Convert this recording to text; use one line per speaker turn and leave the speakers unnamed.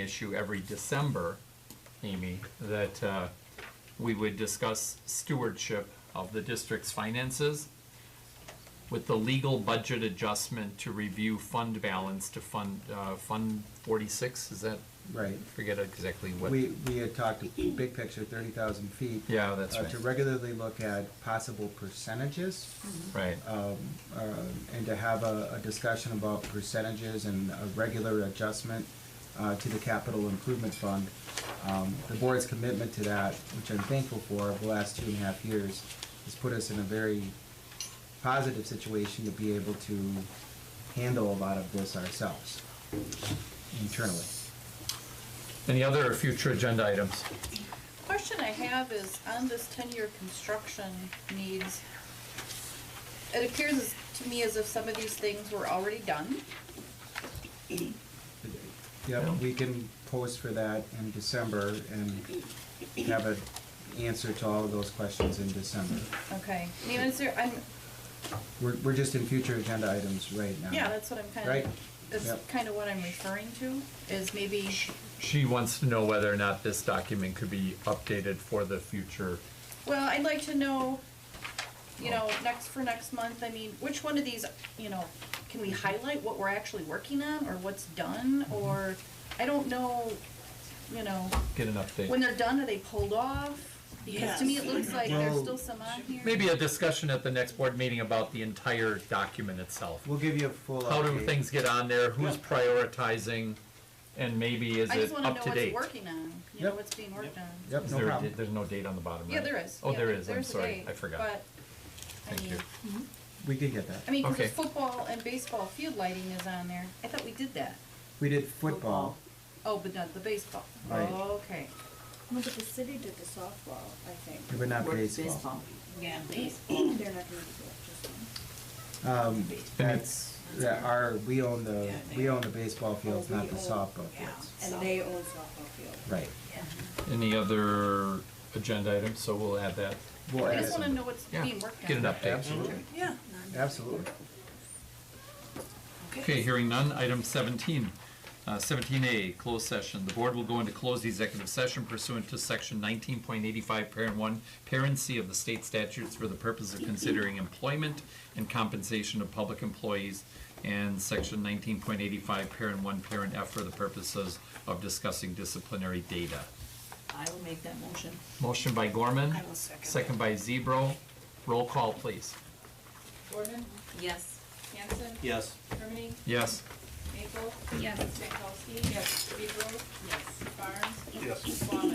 issue every December, Amy, that uh, we would discuss stewardship of the district's finances with the legal budget adjustment to review fund balance to fund, uh, Fund 46, is that,
Right.
forget exactly what.
We, we had talked, big picture, thirty thousand feet.
Yeah, that's
uh, To
right,
regularly look at possible percentages,
right,
um, uh, and to have a, a discussion about percentages and a regular adjustment uh, to the capital improvement fund. Um, The board's commitment to that, which I'm thankful for, over the last two and a half years, has put us in a very positive situation to be able to handle a lot of this ourselves internally.
Any other future agenda items?
Question I have is on this ten-year construction needs, it appears as- to me as if some of these things were already done.
Yeah.
Yep, we can post for that in December and have an answer to all of those questions in December.
Okay, I mean, is there, I'm,
We're, we're just in future agenda items right now.
yeah, that's what I'm kind
Right.
of, that's
Yep.
kind of what I'm referring to, is maybe,
She wants to know whether or not this document could be updated for the future.
well, I'd like to know, you know, next, for next month, I mean, which one of these, you know, can we highlight what we're actually working on, or what's done,
Mm-hmm.
or, I don't know, you know.
Get an
When
update.
they're done, are they pulled off? Because to me, it looks like there's still some on here.
Maybe a discussion at the next board meeting about the entire document itself.
We'll give you a full update.
How do things get on there? Who's prioritizing? And maybe is
I just
it
wanna
up
know
to date?
what's working on, you know,
Yep.
what's being worked on.
Yep,
Is
no
there a da-
problem.
There's no date on the bottom, right?
Yeah, there is.
Oh,
Yeah,
there is. I'm
there's a
sorry.
date,
I forgot.
But, I
Thank
mean,
you.
We did get that.
I mean, 'cause
Okay.
the football and baseball field lighting is on there. I thought we did that.
We did football.
Oh, but not the baseball.
Right.
Okay.
Well, but the city did the softball, I think.
It would not
Work
baseball.
baseball.
Yeah, baseball.
They're not gonna do it just one.
Um, that's, that our, we own the, we own the baseball fields, not the softball fields.
And they own softball field.
Right.
Any other agenda items? So we'll add that.
We'll
I
add
just wanna
some.
know what's
Yeah,
being worked on.
get an update.
Absolutely,
Yeah.
absolutely.
Okay, hearing none. Item 17. Uh, 17A, closed session. The board will go into closed executive session pursuant to Section 19.85, Parent 1, Parent C of the state statutes for the purpose of considering employment and compensation of public employees, and Section 19.85, Parent 1, Parent F for the purposes of discussing disciplinary data.
I will make that motion.
Motion by Gorman.
I will second.
by Zebro. Roll call, please.
Gordon,
Yes.
Hanson,
Yes.
Hermany,
Yes.
Maple. Yes. Stankowski. Yes. Pedro. Yes. Barnes. Yes. Swan.